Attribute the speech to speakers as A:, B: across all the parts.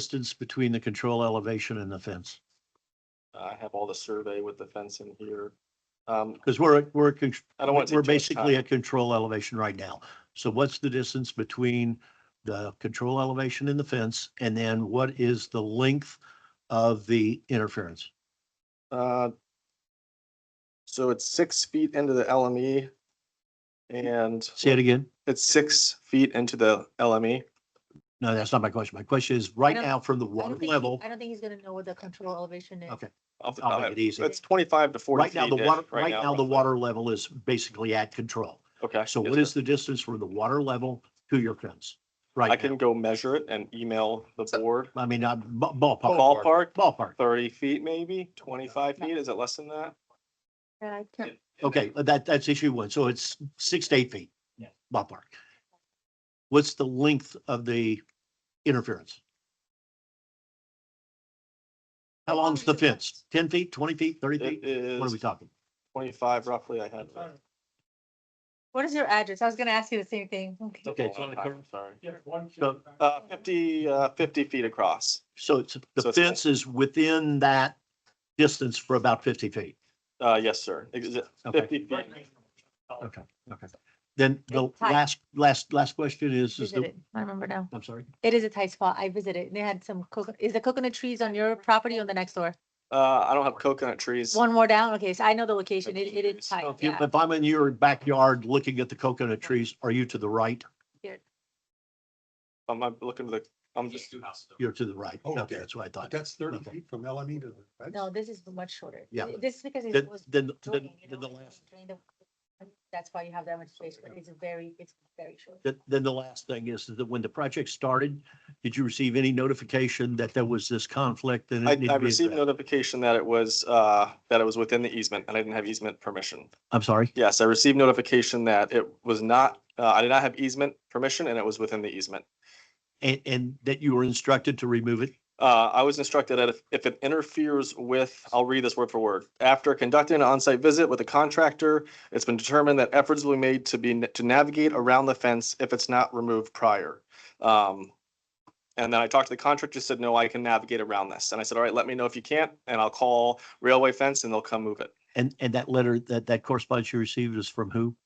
A: distance between the control elevation and the fence?
B: I have all the survey with the fence in here. Um,
A: Because we're, we're, con-
B: I don't want to. uh,
A: we're basically at control elevation right now. So what's the distance between the control elevation and the fence? And then what is the length of the interference?
B: Uh, So it's six feet into the LME. And
A: Say it again.
B: it's six feet into the E. LME.
A: No, that's not my question. My question is right
C: don't-
A: now from the
C: I
A: water
C: don't think he-
A: level,
C: I don't think he's gonna know what the control elevation is.
A: Okay.
B: off the
A: I'll
B: top.
A: make it easy.
B: It's Uh, twenty-five to forty
A: right
B: feet.
A: now, the water,
B: ish,
A: right now, the
B: roughly.
A: water level is basically at control.
B: Okay.
A: So
B: yes,
A: what
B: sir.
A: is the distance from the water level to your fence?
B: I
A: Right now,
B: can go measure it and email the board.
A: I mean, not ba- ballpark,
B: Ballpark,
A: ballpark.
B: thirty feet maybe, twenty-five feet, is it less than that?
C: And I can't,
A: Okay, but that, that's issue one. So it's six to eight feet.
D: Yeah.
A: Ballpark. What's the length of the interference? How
C: How long
A: long's
C: is
A: the
C: the
A: fence?
C: fence?
A: Ten feet, twenty feet, thirty
B: It
A: feet? What are we
B: is
A: talking?
B: twenty-five roughly, I had.
C: what is your address? I was gonna ask you the same thing. Okay.
A: Okay,
D: it's on the curve.
B: Sorry.
D: Yeah, one.
A: So-
B: Uh, fifty, uh, fifty feet across,
A: So it's,
B: So
A: the
B: it's-
A: fence is within that distance for about fifty feet.
B: uh, yes, sir, Ex-
A: Okay.
B: fifty feet.
A: Okay, okay. Then the
C: Hi.
A: last, last, last question is, is the,
C: Visited. I remember now.
A: I'm sorry.
C: It is a tight spot. I visited and they had some coconut, is the coconut trees on your property or the next door?
B: Uh, I don't have coconut trees.
C: One more down? Okay, so I know the location. It, it is
A: So
C: tight.
A: If you-
C: Yeah.
A: if I'm in your backyard looking at the coconut trees, are you to the right?
B: I'm, I'm looking to the, I'm just,
A: You're to the right.
E: Oh,
A: Okay,
E: okay.
A: that's what I thought.
E: That's thirty
A: Okay.
E: feet from LME to the fence?
C: No, this is much shorter.
A: Yeah.
C: This is because
A: Then,
C: it was.
A: then, then,
C: draining, you
A: then
C: know,
A: the
C: it was
A: last,
C: drained of- That's why you have that much space, but it's very, it's very short.
A: then, then the last thing is that when the project started, did you receive any notification that there was this conflict and
B: I,
A: it needed
B: I
A: to be
B: received
A: addressed?
B: notification that it was, uh, that it was within the easement and I didn't have easement permission.
A: I'm sorry.
B: Yes, I received notification that it was not, uh, I did not have easement permission and it was within the easement.
A: And, and that you were instructed to remove it?
B: Uh, I was instructed that if, if it interferes with, I'll read this word for word. After conducting an on-site visit with a contractor, it's been determined that efforts will be made to be, to navigate around the fence if it's not removed prior. Um, and then I talked to the contractor, said, no, I can navigate around this. And I said, all right, let me know if you can't, and I'll call railway fence and they'll come move it.
A: And, and that letter, that, that correspondence you received is from who?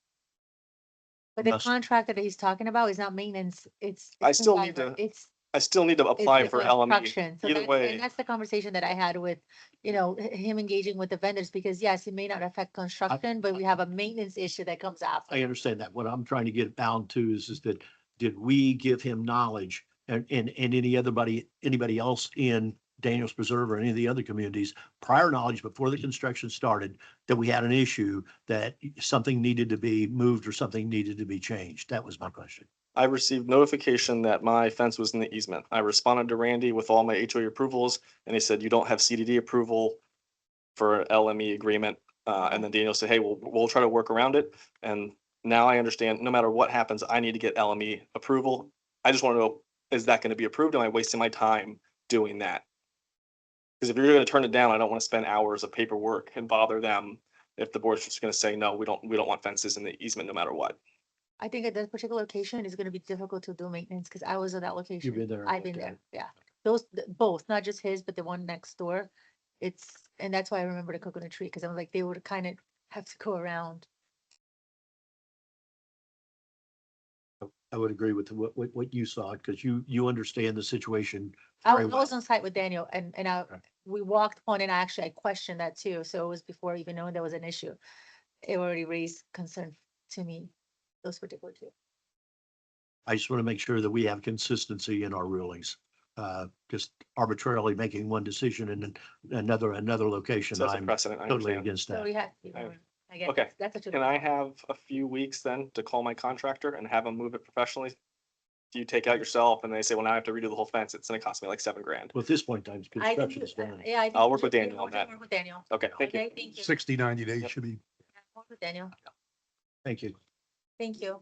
C: But the
A: Must-
C: contractor that he's talking about is not maintenance. It's.
B: I
C: it's
B: still need
C: fiber.
B: to
C: It's.
B: I still need to
C: it's
B: apply
C: the
B: for E. LME.
C: construction. So
B: Either
C: that's-
B: way-
C: And that's the conversation that I had with, you know, h- him engaging with the vendors, because yes, it may not affect construction, but we have a maintenance issue that comes after.
A: I understand that. What I'm trying to get bound to is, is that, did we give him knowledge? And, and, and any other body, anybody else in Daniels Preserve or any of the other communities, prior knowledge before the construction started, that we had an issue, that something needed to be moved or something needed to be changed? That was my question.
B: I received notification that my fence was in the easement. I responded to Randy with all my HOA approvals, and he said, you don't have CDD approval for an LME agreement. Uh, and then Daniel said, hey, we'll, we'll try to work around it. And now I understand, no matter what happens, I need to get LME approval. I just want to know, is that going to be approved? Am I wasting my time doing that? Because if you're going to turn it down, I don't want to spend hours of paperwork and bother them if the board's just going to say, no, we don't, we don't want fences in the easement no matter what.
C: I think at that particular location is gonna be difficult to do maintenance, because I was at that location.
A: been there and
C: I've been
A: looked at
C: there, yeah. Those, th- both, not just his, but the one next door. It's, and that's why I remember the coconut tree, because I'm like, they would kind of have to go around.
A: I would agree with what, what, what you saw, because you, you understand the situation.
C: I
A: very
C: was I was
A: well.
C: on site with Daniel and, and I,
A: Okay.
C: we walked on and actually I questioned that too. So it was before even knowing there was an issue. It already raised concern to me, those particular two.
A: I just want to make sure that we have consistency in our rulings. Uh, just arbitrarily making one decision and then another, another location.
B: So that's a
A: I'm
B: precedent. I
A: totally
B: understand.
A: against
C: So
A: that.
C: we had. you
B: I-
C: know, I guess
B: okay.
C: That's such
B: Can
C: a,
B: I have a few weeks then to call my contractor and have him move it professionally? Do you take out yourself and they say, well, now I have to redo the whole fence. It's gonna cost me like seven grand.
A: Well, at this point in time,
C: I think,
A: construction's
C: you- uh,
A: done.
C: yeah. I think
B: I'll
C: you
B: work with
C: should-
B: Daniel on
C: you should
B: that.
C: Work with Daniel.
B: Okay, thank you.
C: Okay, thank you.
E: Sixty, ninety days
B: Yep.
E: should be
C: Work with Daniel,
A: Thank you.
C: thank you.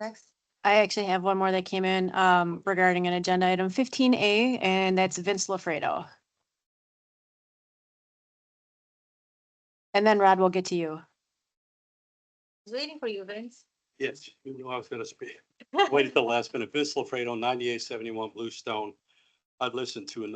C: Next.
F: I actually have one more that came in um, regarding an agenda item fifteen A, and that's Vince LaFredo. And then Rod, we'll get to you.
C: I was waiting for you, Vince.
G: Yes, you knew I was gonna speak. Wait at the last minute. Vince Lafredo, ninety-eight seventy-one Bluestone.
D: I've listened to a